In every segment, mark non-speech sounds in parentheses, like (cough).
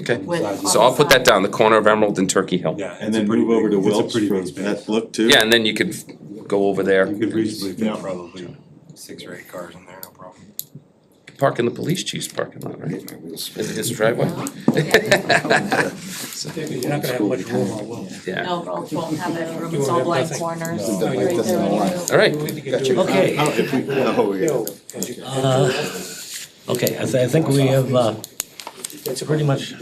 Okay, With so I'll put that down, the corner of Emerald and Turkey Hill. Yeah. And it's a then pretty move over big- to it's a Wilt's pretty for big space. that look too. Yeah, and then you could go over there, You could reasonably fit Yeah. probably six or eight cars in there, no problem. park in the police chief's parking lot, right? Is is the driveway? Yeah. You're not gonna have much room on Will. (laughs) Yeah, No, Rose won't have that room, You it's won't all have blank nothing. corners. No. Right Like there. doesn't align. all right, Okay. Oh, if we- (laughs) oh, yeah. Uh, Okay, I thi- I think we have, uh, pretty much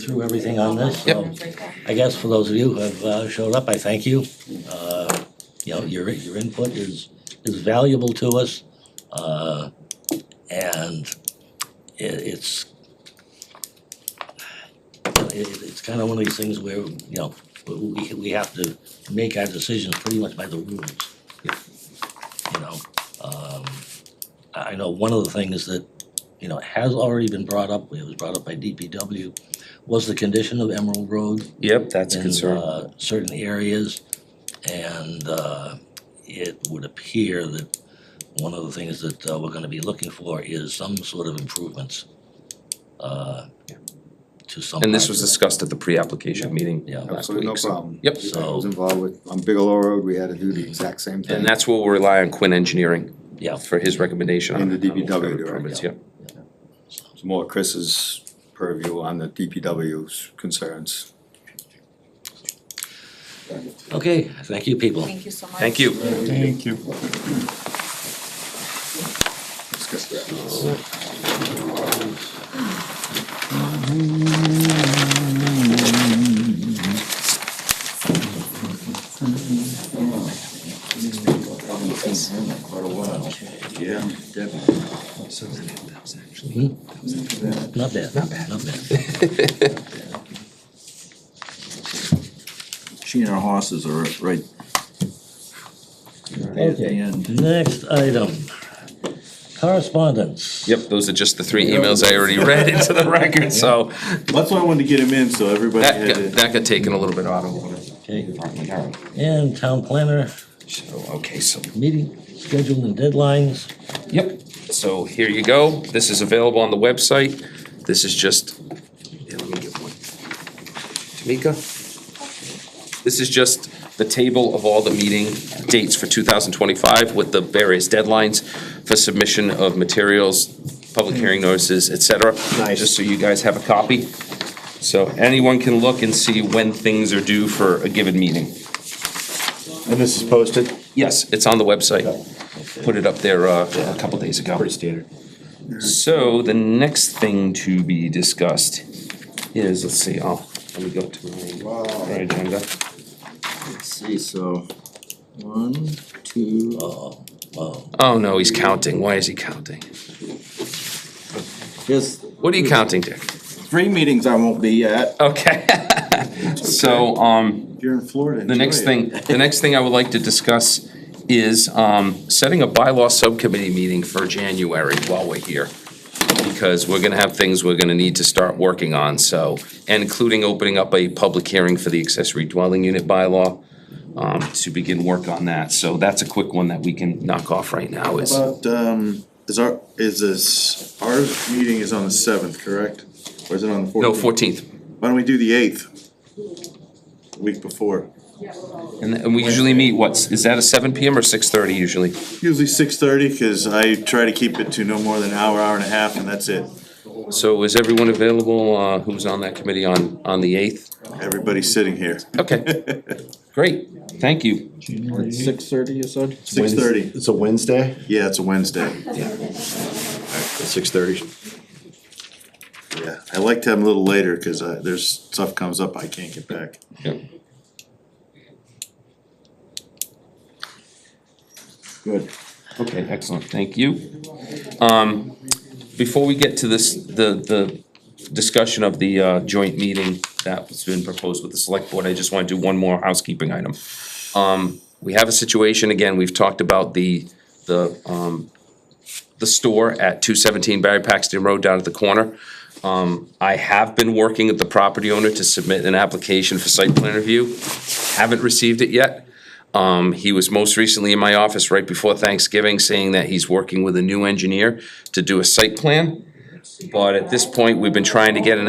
through everything on this. Yep. So I guess for those of you who have uh, showed up, I thank you. Uh, You know, your, your input is, is valuable to us. uh, And it, it's, it, it's kind of one of these things where, you know, we, we- we have to make our decisions pretty much by the rules. You know, um, I I know one of the things that, you know, has already been brought up, it was brought up by DPW, was the condition of Emerald Road yep, that's a in, concern. uh, certain areas. And uh, it would appear that one of the things that uh, we're gonna be looking for is some sort of improvements uh, to some. And this parts was of that. discussed at the pre-application meeting Yeah. last Absolutely, no week, so- problem. Yep. I was involved with, on Bigelow Road, we had to do the exact same thing. Mm-hmm. And that's where we'll rely on Quinn Engineering Yeah. for his recommendation on. And the on DPW whatever doing it, permits, yeah. yeah. It's More Chris's purview on the DPW's concerns. Okay, thank you, people. Thank you so much. Thank you. Thank you. Yeah. Hmm? Not bad, not bad, not bad. She and her horses are right. At the Okay. end. Next item, correspondence. Yep, those are just the three emails I already read into the record, so That's why I wanted to get him in, so everybody that had got, to. that got taken a little bit out of order. Okay. And town planner So, okay, so meeting schedule and deadlines. Yep, so here you go, this is available on the website, this is just, yeah, let me get one. Tamika? This is just the table of all the meeting dates for two thousand twenty-five with the various deadlines for submission of materials, public hearing notices, et cetera. Nice. Just so you guys have a copy, so anyone can look and see when things are due for a given meeting. And this is posted? Yes, it's on the website. Put it up there uh, a couple days ago. Pretty standard. So the next thing to be discussed is, let's see, oh, let me go to my, my agenda. Let's see, so, one, two, Oh, wow. Oh, no, he's counting. Why is he counting? there's What are you counting, Dick? three meetings I won't be at. Okay. (laughs) So, um, If you're in Florida, The next enjoy it. thing, the next thing I would like to discuss is um, setting a bylaw subcommittee meeting for January while we're here. Because we're gonna have things we're gonna need to start working on, so, and including opening up a public hearing for the accessory dwelling unit bylaw um, to begin work on that, so that's a quick one that we can knock off right now is, But, um, is our, is this, our meeting is on the seventh, correct? Or is it on the no, fourteenth? fourteenth. Why don't we do the eighth? Week before, And and we usually meet, what's, is that a seven PM or six thirty usually? usually six thirty, cause I try to keep it to no more than an hour, hour and a half, and that's it. So is everyone available, uh, who's on that committee on, on the eighth? Everybody's sitting here, Okay, great, thank you. Six thirty, you said? six thirty, It's a Wednesday? yeah, it's a Wednesday, Six thirty. yeah, I like to have them a little later, cause I, there's stuff comes up I can't get back. Good. Okay, excellent, thank you. Um, before we get to this, the, the discussion of the, uh, joint meeting that's been proposed with the select board, I just wanna do one more housekeeping item. Um, we have a situation, again, we've talked about the, the, um, the store at two seventeen Barry Paxton Road down at the corner. Um, I have been working with the property owner to submit an application for site plan review, haven't received it yet. Um, he was most recently in my office right before Thanksgiving saying that he's working with a new engineer to do a site plan. But at this point, we've been trying to get an